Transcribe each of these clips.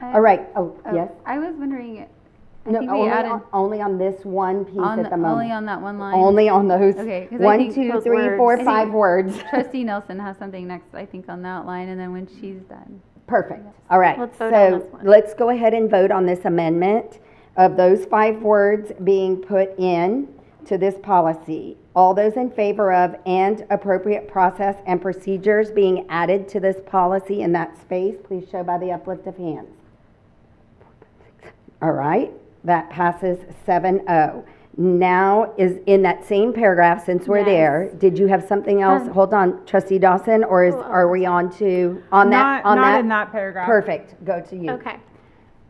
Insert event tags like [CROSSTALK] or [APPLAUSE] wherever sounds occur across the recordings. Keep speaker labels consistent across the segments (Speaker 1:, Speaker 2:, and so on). Speaker 1: I-
Speaker 2: All right, oh,
Speaker 1: oh,
Speaker 2: yes?
Speaker 1: I was wondering, I
Speaker 2: No,
Speaker 1: think we
Speaker 2: only
Speaker 1: added,
Speaker 2: on- Only on this one piece
Speaker 1: on,
Speaker 2: at
Speaker 1: the-
Speaker 2: the
Speaker 1: only
Speaker 2: moment.
Speaker 1: on that one line.
Speaker 2: Only [LAUGHS] on those,
Speaker 1: Okay, 'cause I
Speaker 2: one,
Speaker 1: think
Speaker 2: two,
Speaker 3: those
Speaker 2: three, four,
Speaker 3: words-
Speaker 2: five words.
Speaker 1: Trustee Nelson has something next, I think, on that line, and then when she's done.
Speaker 2: Perfect, all right.
Speaker 3: Let's vote on this
Speaker 2: So
Speaker 3: one.
Speaker 2: let's go ahead and vote on this amendment of those five words being put in to this policy. All those in favor of and appropriate process and procedures being added to this policy in that space, please show by the uplift of hands. All right, that passes 7-0. Now is in that same paragraph, since we're there, did you have something
Speaker 3: Um,
Speaker 2: else? Hold on, trustee Dawson, or
Speaker 3: oh,
Speaker 2: is, are we on to, on that,
Speaker 4: Not,
Speaker 2: on that?
Speaker 4: not in that paragraph.
Speaker 2: Perfect, go to you.
Speaker 3: Okay.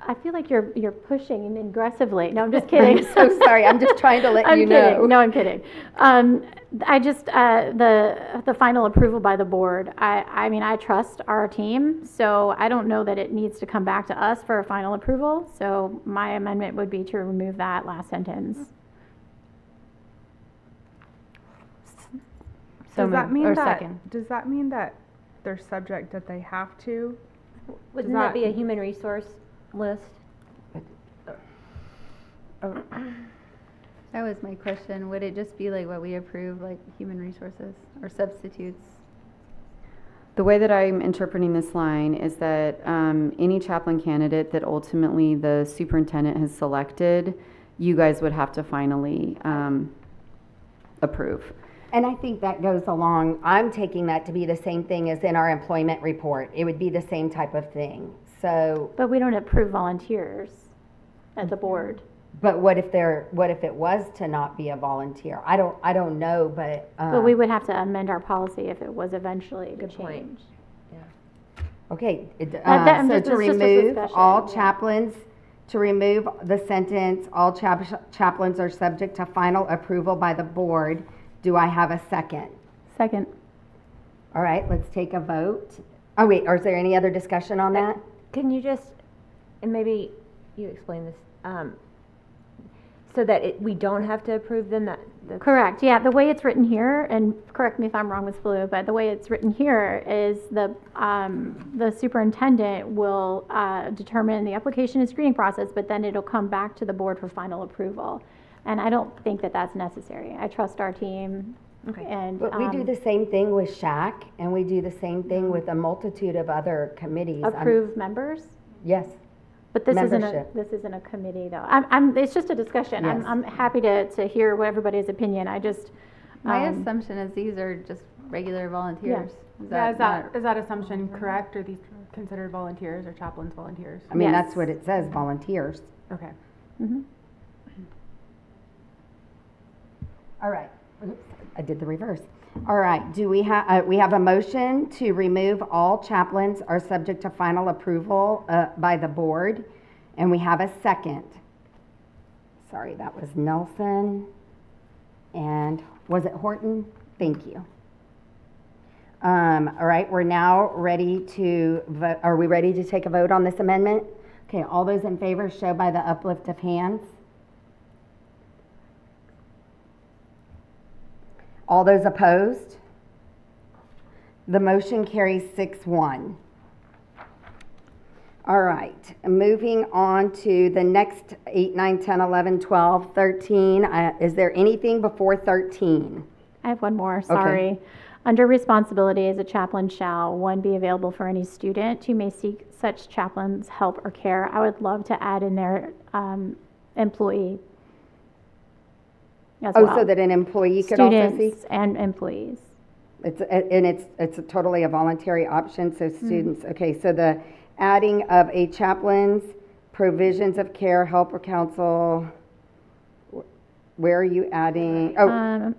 Speaker 3: I feel like you're, you're pushing him aggressively. No, I'm
Speaker 2: [LAUGHS]
Speaker 3: just kidding.
Speaker 2: I'm so sorry, I'm just trying to let
Speaker 3: I'm
Speaker 2: you
Speaker 3: kidding.
Speaker 2: know.
Speaker 3: No, I'm kidding. Um, I just, uh, the, the final approval by the board, I, I mean, I trust our team, so I don't know that it needs to come back to us for a final approval. So my amendment would be to remove that last sentence.
Speaker 4: Does that
Speaker 5: moved,
Speaker 4: mean
Speaker 5: or
Speaker 4: that,
Speaker 5: second.
Speaker 4: does that mean that they're subject that they have to?
Speaker 5: Wouldn't
Speaker 4: that-
Speaker 5: that be a human resource list?
Speaker 1: That was my question, would it just be like what we approve, like human resources or substitutes?
Speaker 6: The way that I'm interpreting this line is that um, any chaplain candidate that ultimately the superintendent has selected, you guys would have to finally um, approve.
Speaker 2: And I think that goes along, I'm taking that to be the same thing as in our employment report. It would be the same type of thing. So,
Speaker 3: But we don't approve volunteers at the board.
Speaker 2: but what if there, what if it was to not be a volunteer? I don't, I don't know, but, um.
Speaker 3: But we would have to amend our policy if it was eventually to change.
Speaker 2: Okay, it-
Speaker 3: that-
Speaker 2: uh,
Speaker 3: I'm
Speaker 2: so
Speaker 3: just-
Speaker 2: to
Speaker 3: it's just a
Speaker 2: remove
Speaker 3: discussion,
Speaker 2: all
Speaker 3: yeah.
Speaker 2: chaplains, to remove the sentence, all chap- chaplains are subject to final approval by the board, do I have a second?
Speaker 1: Second.
Speaker 2: All right, let's take a vote. Oh, wait, or is there any other discussion on that?
Speaker 5: Can you just, and maybe you explain this, um, so that it, we don't have to approve them, that, that's
Speaker 3: Correct, yeah, the way it's written here, and correct me if I'm wrong, Ms. Blue, but the way it's written here is the, um, the superintendent will, uh, determine the application and screening process, but then it'll come back to the board for final approval. And I don't think that that's necessary. I trust our team and,
Speaker 2: But we do
Speaker 3: um,
Speaker 2: the same thing with SHAC, and we do the same thing with a multitude of other committees. I'm-
Speaker 3: approve members.
Speaker 2: Yes,
Speaker 3: But this isn't a,
Speaker 2: Membership.
Speaker 3: this isn't a committee though. I'm, I'm, it's just a discussion. I'm,
Speaker 2: Yes.
Speaker 3: I'm happy to, to hear what everybody's opinion. I just,
Speaker 1: My
Speaker 3: um,
Speaker 1: assumption is these are just regular volunteers. Is
Speaker 7: Yeah, is
Speaker 1: that not?
Speaker 7: that, is that assumption correct? Are these considered volunteers or chaplains volunteers?
Speaker 2: I mean,
Speaker 3: Yes.
Speaker 2: that's what it says, volunteers. Mm-hmm.
Speaker 7: Okay.
Speaker 2: All right. Oops, I did the reverse. All right, do we have, uh, we have a motion to remove all chaplains are subject to final approval, uh, by the board. And we have a second. Sorry, that was Nelson. And was it Horton? Thank you. Um, all right, we're now ready to vote, are we ready to take a vote on this amendment? Okay, all those in favor show by the uplift of hands. All those opposed? The motion carries 6-1. All right, moving on to the next 8, 9, 10, 11, 12, 13. Uh, Is there anything before 13?
Speaker 3: I have one more, sorry. Under responsibility as a chaplain shall, one, be available for any student who may seek such chaplain's help or care. I would love to add in there, um, employee as
Speaker 2: Oh,
Speaker 3: well.
Speaker 2: so that an employee could also see?
Speaker 3: Students and employees.
Speaker 2: It's, and it's, it's a totally a voluntary option, so students, okay, so the adding of a chaplain's provisions of care, help or counsel, where are you adding? Oh,
Speaker 3: Um,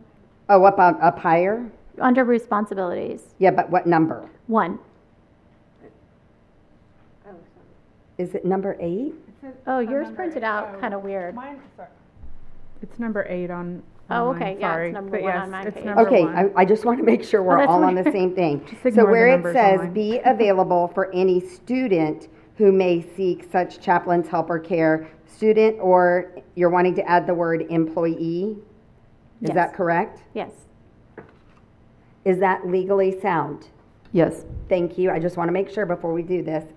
Speaker 2: oh, up, on- up higher?
Speaker 3: under responsibilities,
Speaker 2: Yeah, but what number?
Speaker 3: one. Oh,
Speaker 2: Is it number eight?
Speaker 3: Oh, yours printed out kind of weird.
Speaker 4: It's number eight on.
Speaker 3: Oh,
Speaker 4: on mine,
Speaker 3: okay, yeah, it's
Speaker 4: sorry.
Speaker 3: number
Speaker 4: But
Speaker 3: one on
Speaker 4: yes,
Speaker 3: my
Speaker 4: it's
Speaker 3: page.
Speaker 4: number
Speaker 2: Okay,
Speaker 4: one. Oh,
Speaker 2: I, I just want to make sure we're
Speaker 3: that's
Speaker 2: all on the
Speaker 3: weird.
Speaker 2: same thing. So
Speaker 4: ignore the
Speaker 2: where it
Speaker 4: numbers
Speaker 2: says,
Speaker 4: online.
Speaker 2: be available for any student who may seek such chaplain's help or care, student, or you're wanting to add the word employee? Is
Speaker 3: Yes.
Speaker 2: that correct?
Speaker 3: Yes.
Speaker 2: Is that legally sound?
Speaker 6: Yes.
Speaker 2: Thank you, I just want to make sure before we do this.